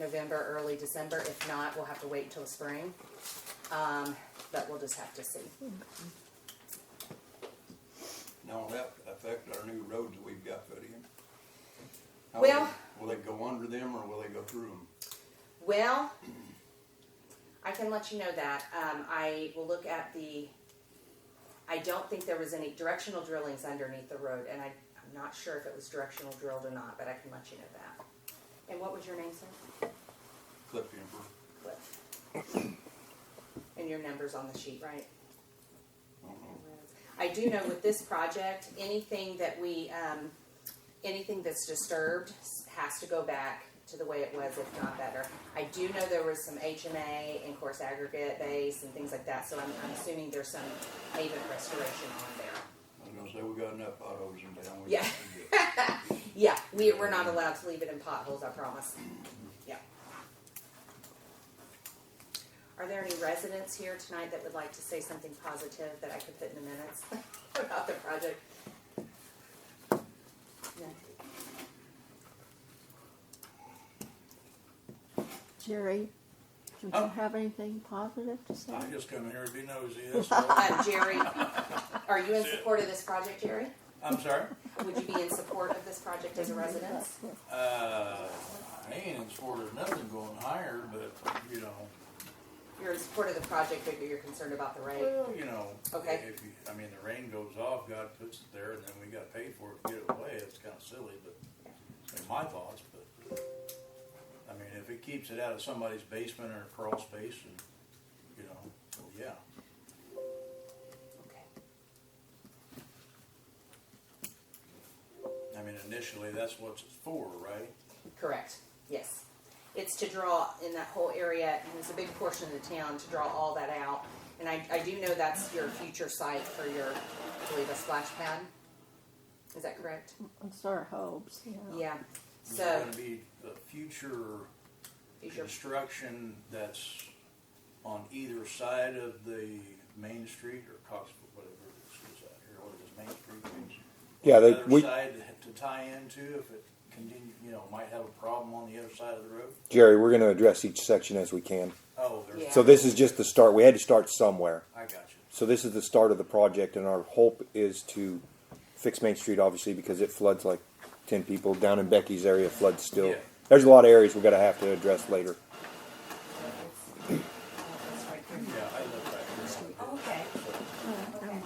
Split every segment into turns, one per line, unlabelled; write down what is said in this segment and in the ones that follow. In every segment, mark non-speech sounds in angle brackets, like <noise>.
November, early December. If not, we'll have to wait until the spring. Um, but we'll just have to see.
Now, will that affect our new roads that we've got put in? How
Well-
Will they go under them or will they go through them?
Well, I can let you know that. Um, I will look at the, I don't think there was any directional drillings underneath the road, and I, I'm not sure if it was directional drilled or not, but I can let you know that. And what was your name, sir?
Clip Emperor?
Cliff. And your number's on the sheet, right?
I don't know.
I do know with this project, anything that we, um, anything that's disturbed has to go back to the way it was, if not better. I do know there was some HMA and coarse aggregate base and things like that, so I'm, I'm assuming there's some pavement restoration on there.
I was gonna say, we got enough potholes in town. we
Yeah.
don't need to-
Yeah, we, we're not allowed to leave it in potholes, I promise. Yeah. Are there any residents here tonight that would like to say something positive that I could put in the minutes <laughs> about the project? No?
Jerry, do
Oh.
you have anything positive to say?
I just come here to be nosy, that's all.
Uh, Jerry, are you in support of this project, Jerry?
I'm sorry?
Would you be in support of this project as a resident?
Uh, I ain't in support of nothing going higher, but, you know,
You're in support of the project, but you're concerned about the rate?
well, you know.
Okay.
If, you- I mean, the rain goes off, God puts it there, and then we gotta pay for it to get it away, it's kinda silly, but, in my thoughts, but. I mean, if it keeps it out of somebody's basement or crawl space and, you know, well, yeah.
Okay.
I mean, initially, that's what it's for, right?
Correct, yes. It's to draw in that whole area, and it's a big portion of the town, to draw all that out. And I, I do know that's your future site for your, I believe, a splash pad? Is that correct?
It's our hopes, yeah.
Mm-hmm.
Yeah,
It's
so,
gonna be the future
is your,
construction that's on either side of the main street or Cox, whatever this is out here, what is it, Main Street? Main Street?
Yeah, they,
Other
we,
side to tie into if it continue, you know, might have a problem on the other side of the road.
Jerry, we're going to address each section as we can.
Oh, there's,
So this is just the start. We had to start somewhere.
I got you.
So this is the start of the project, and our hope is to fix Main Street, obviously, because it floods like ten people down in Becky's area. Floods still.
Yeah.
There's a lot of areas we're going to have to address later.
Yeah, I live back here.
Oh, Okay.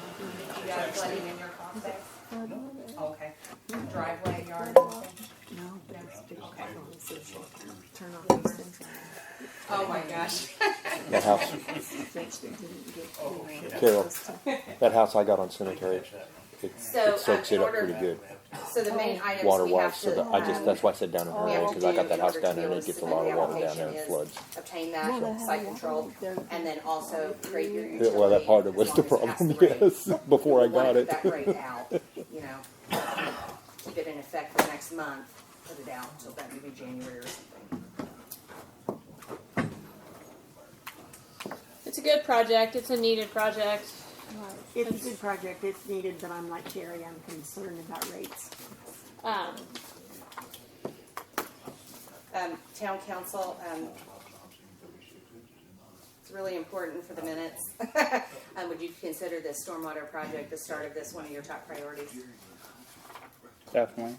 You got a flooding in your complex? Okay. Driveway, yard, Mm-hmm.
No,
okay.
turn off these things.
Oh, my gosh.
That house,
Fixed it, didn't get
Oh,
ran.
yeah.
Carol. that house I got on
I didn't
Cemetery,
catch that one.
it,
So,
it soaks
um,
it
in
up
order-
pretty good
so the main items
water
we have
wise.
to.
So that, I just
um,
that's why I said down in her
we have
area
to
because I got
do
that
in
house
order to
down there
be
and
able
it
to
gets a
submit
lot
the
of water down
application
there and
is
floods.
Obtain
Well, they
that,
have
site
water
control,
there.
and then also create your utility.
Well, that part
as
of was
long
the
as it has
problem.
to rain.
<laughs> Yes, before I
We'll
got
wanna
it.
put That rate out, you know, keep it in effect for next month, put it out, so that maybe January or something.
It's a good project. It's a needed project.
It's a good project, it's needed, but I'm like Jerry, I'm concerned about rates.
Um,
Um, town council, um, it's really important for the minutes. <laughs> Um, would you consider this stormwater project, the start of this, one of your top priorities?
Definitely.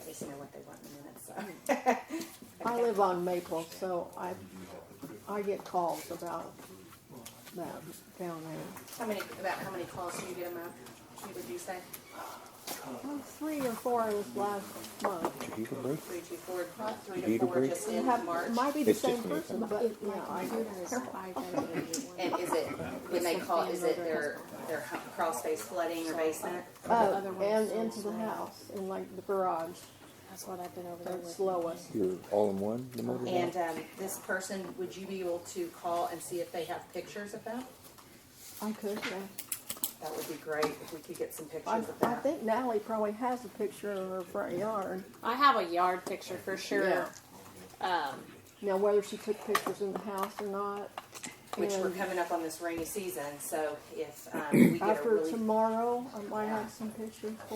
At least you know what they want in the minutes, so.
I live on Maple, so I, I get calls about that down there.
How many, about how many calls do you get a month, would you say?
Well, three or four this last month.
You can breathe.
Three, two, four, three
Need
to
a
four
break?
just
You
in
have,
March?
might be the
It's just
same
me.
person, but yeah, I,
And is it, when they call, is it their, their hu- crawl space flooding or basement?
oh, and into the house, in like the garage,
that's what I've been over there
that's
with.
lowest.
You're all in one. The motor.
And, um, this person, would you be able to call and see if they have pictures of that?
I could, yeah.
That would be great if we could get some
I,
pictures of
I
that.
think Natalie probably has a picture of her front yard.
I have a yard picture for sure.
Yeah.
Um,
Now, whether she took pictures in the house or not,
which we're
And-
coming up on this rainy season, so if um, we get a
After
really
tomorrow, I might have some pictures for